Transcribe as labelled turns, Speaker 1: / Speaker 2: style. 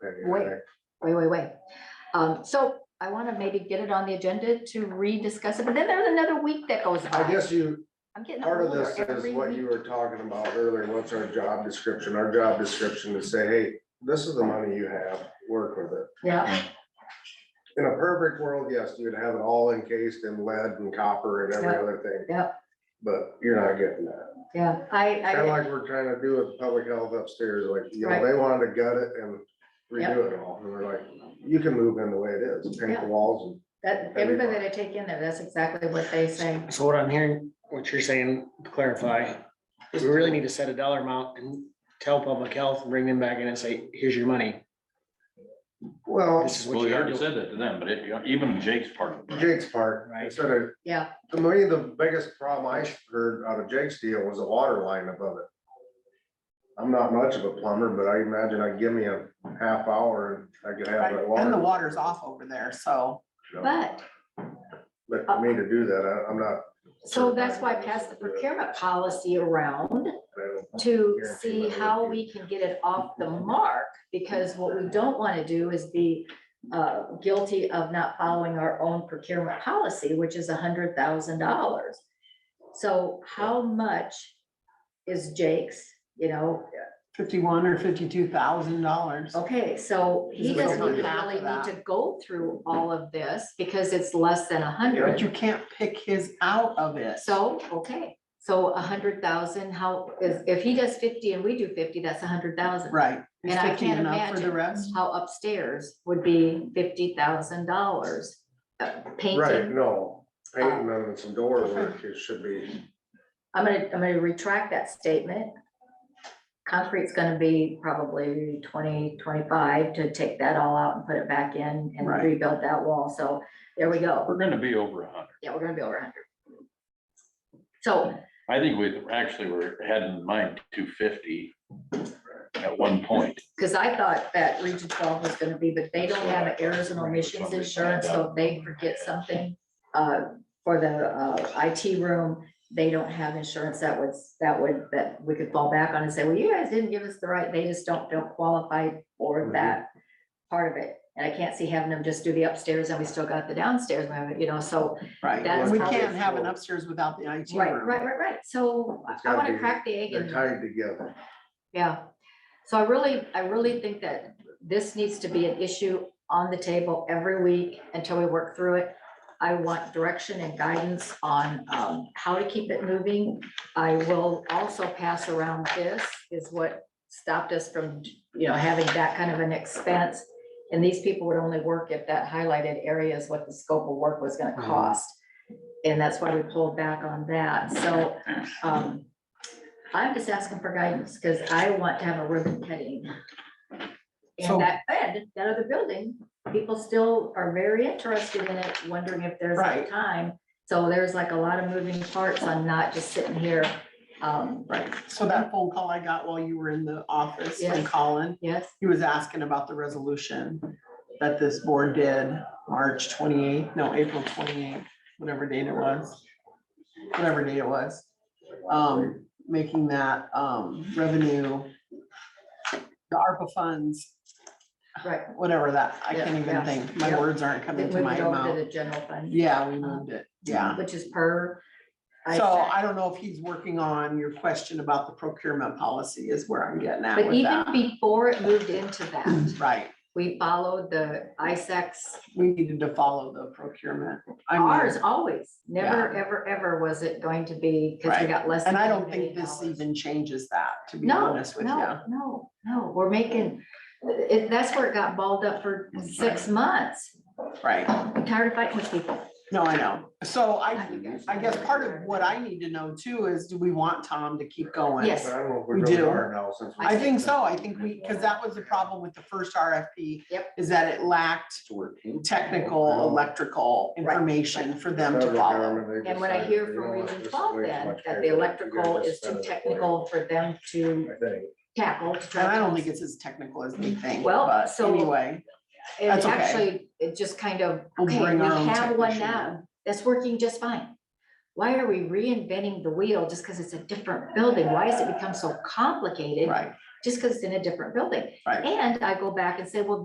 Speaker 1: Wait. Wait, wait, wait. Um, so I want to maybe get it on the agenda to rediscuss it, but then there's another week that goes by.
Speaker 2: I guess you,
Speaker 1: I'm getting
Speaker 2: part of
Speaker 1: older
Speaker 2: this
Speaker 1: every
Speaker 2: is what you
Speaker 1: week.
Speaker 2: were talking about earlier, what's our job description, our job description is say, hey, this is the money you have, work with it.
Speaker 1: Yeah,
Speaker 2: In a perfect world, yes, you'd have it all encased in lead and copper and every
Speaker 1: Yeah.
Speaker 2: other thing.
Speaker 1: Yeah.
Speaker 2: But you're not getting that,
Speaker 1: yeah, I,
Speaker 2: kinda
Speaker 1: I,
Speaker 2: like we're trying to do with public health upstairs, like, you know,
Speaker 1: Right.
Speaker 2: they wanted to gut it and redo it all, and we're like, you can move in the way it is, paint
Speaker 1: Yeah.
Speaker 2: the walls and.
Speaker 1: that, everybody that I take in there, that's exactly what they say.
Speaker 3: So what I'm hearing, what you're saying, to clarify, is we really need to set a dollar amount and tell public health, bring them back in and say, here's your money.
Speaker 2: Well,
Speaker 3: This is what
Speaker 4: Well,
Speaker 3: you
Speaker 4: you
Speaker 3: have
Speaker 4: already
Speaker 3: to.
Speaker 4: said that to them, but it, even Jake's part of it.
Speaker 2: Jake's part,
Speaker 3: Right.
Speaker 2: instead of
Speaker 1: Yeah,
Speaker 2: To me, the biggest problem I heard out of Jake's deal was the water line above it. I'm not much of a plumber, but I imagine I'd give me a half hour and I could have that water.
Speaker 5: And the water's off over there, so
Speaker 2: So,
Speaker 1: but,
Speaker 2: But for me to do that, I- I'm not.
Speaker 1: so that's why I passed the procurement policy around
Speaker 2: I don't-
Speaker 1: to
Speaker 2: Yeah, if you
Speaker 1: see
Speaker 2: let it
Speaker 1: how
Speaker 2: be.
Speaker 1: we can get it off the mark, because what we don't want to do is be uh, guilty of not following our own procurement policy, which is hundred thousand dollars. So how much is Jake's, you know,
Speaker 5: fifty-one or fifty-two thousand dollars.
Speaker 1: okay, so he
Speaker 5: Just look
Speaker 1: doesn't
Speaker 2: over
Speaker 1: really
Speaker 5: the top of
Speaker 1: need
Speaker 5: that.
Speaker 1: to go through all of this, because it's less than a hundred.
Speaker 5: But you can't pick his out of it.
Speaker 1: So, okay, so hundred thousand, how, if, if he does fifty and we do fifty, that's hundred thousand.
Speaker 5: Right. Is
Speaker 1: And I
Speaker 5: 50
Speaker 1: can't
Speaker 5: enough For the
Speaker 1: imagine.
Speaker 5: rest,
Speaker 1: how upstairs would be fifty thousand dollars. Uh,
Speaker 2: Right,
Speaker 1: Painting,
Speaker 2: no, painting and some door
Speaker 1: Uh-huh.
Speaker 2: work, it should be,
Speaker 1: I'm gonna, I'm gonna retract that statement. Concrete's gonna be probably 20, 25 to take that all out and put it back in and
Speaker 5: Right.
Speaker 1: rebuild that wall, so there we go.
Speaker 4: We're gonna be over a hundred.
Speaker 1: Yeah, we're gonna be over hundred. So,
Speaker 4: I think we actually were had in mind two fifty at one point.
Speaker 1: cause I thought that region twelve was gonna be, but they don't have errors and omissions insurance, so if they forget something. Uh, for the uh, IT room, they don't have insurance that would, that would, that we could fall back on and say, well, you guys didn't give us the right, they just don't, don't qualify for
Speaker 2: Mhm.
Speaker 1: that part of it. And I can't see having them just do the upstairs and we still got the downstairs, we haven't, you know, so,
Speaker 5: right.
Speaker 1: That's
Speaker 5: We
Speaker 1: how
Speaker 5: can't
Speaker 2: they
Speaker 5: have an
Speaker 2: feel.
Speaker 5: upstairs without the IT
Speaker 1: right,
Speaker 5: room.
Speaker 1: right, right, right. So
Speaker 2: It's
Speaker 1: I
Speaker 2: gotta
Speaker 1: want to
Speaker 2: be-
Speaker 1: crack the egg
Speaker 2: they're
Speaker 1: and.
Speaker 2: tied together.
Speaker 1: Yeah, so I really, I really think that this needs to be an issue on the table every week until we work through it. I want direction and guidance on um, how to keep it moving. I will also pass around this is what stopped us from, you know, having that kind of an expense. And these people would only work if that highlighted area is what the scope of work was gonna
Speaker 3: Mhm.
Speaker 1: cost. And that's why we pulled back on that. So um, I'm just asking for guidance because I want to have a ribbon cutting.
Speaker 5: So-
Speaker 1: And that bed, that other building, people still are very interested in it, wondering if there's a
Speaker 5: Right.
Speaker 1: time. So there's like a lot of moving parts on not just sitting here. Um,
Speaker 5: Right. So that phone call I got while you were in the office from
Speaker 1: Yes.
Speaker 5: Colin,
Speaker 1: yes,
Speaker 5: he was asking about the resolution that this board did March twenty-eighth, no, April twenty-eighth, whatever date it was. Whatever date it was. um, making that, um, revenue. The ARPA funds,
Speaker 1: right.
Speaker 5: whatever that, I can't
Speaker 1: Yeah,
Speaker 5: even think, my
Speaker 1: yeah.
Speaker 5: words aren't
Speaker 1: They
Speaker 5: coming
Speaker 1: moved
Speaker 5: to my
Speaker 1: it over to
Speaker 5: mouth.
Speaker 1: the general fund.
Speaker 5: Yeah, we moved it, yeah.
Speaker 1: Which is per.
Speaker 5: So I don't know if he's working on your question about the procurement policy is where I'm getting at
Speaker 1: But
Speaker 5: with
Speaker 1: even
Speaker 5: that.
Speaker 1: before it moved into that,
Speaker 5: Right,
Speaker 1: we followed the E ISACs
Speaker 5: we needed to follow the procurement. I mean,
Speaker 1: Ours always, never, ever, ever was it going to be, because we
Speaker 5: Right.
Speaker 1: got less.
Speaker 5: And I
Speaker 1: than
Speaker 5: don't think this
Speaker 1: $1 million.
Speaker 5: even changes that, to be
Speaker 1: No,
Speaker 5: honest with you.
Speaker 1: no, no, no, we're making, it, that's where it got balled up for six months.
Speaker 5: Right,
Speaker 1: I'm tired of fighting with people.
Speaker 5: no, I know. So I,
Speaker 1: you guys
Speaker 5: I guess
Speaker 1: know.
Speaker 5: part of what I need to know too is, do we want Tom to keep going?
Speaker 1: Yes.
Speaker 2: I don't know if
Speaker 5: We
Speaker 2: we really
Speaker 5: do.
Speaker 2: are now since. we-
Speaker 5: I think so. I think we, because that was the problem with the first RFP.
Speaker 1: Yep.
Speaker 5: Is that it lacked technical, electrical
Speaker 1: Right.
Speaker 5: information for them to
Speaker 2: Federal
Speaker 5: follow.
Speaker 2: government, they
Speaker 1: And what I
Speaker 2: decided,
Speaker 1: hear
Speaker 2: you know
Speaker 1: from
Speaker 2: what,
Speaker 1: Region
Speaker 2: this is
Speaker 1: Twelve
Speaker 2: way too
Speaker 1: then,
Speaker 2: much
Speaker 1: that the
Speaker 2: paper. You guys
Speaker 1: electrical
Speaker 2: just
Speaker 1: is
Speaker 2: spend
Speaker 1: too
Speaker 2: it.
Speaker 1: technical for them to
Speaker 2: I think.
Speaker 1: tackle. to try
Speaker 5: And I don't
Speaker 1: to-
Speaker 5: think it's as technical as they think,
Speaker 1: Well,
Speaker 5: but
Speaker 1: so-
Speaker 5: anyway,
Speaker 1: It
Speaker 5: that's okay.
Speaker 1: actually, it just kind of,
Speaker 5: We'll
Speaker 1: okay,
Speaker 5: bring
Speaker 1: we
Speaker 5: our own
Speaker 1: have one
Speaker 5: technician
Speaker 1: now, that's working just fine. Why are we reinventing the wheel just because it's a different building? Why has it become so complicated?
Speaker 5: right,
Speaker 1: Just because it's in a different building?
Speaker 5: right.
Speaker 1: And I go back and say, well,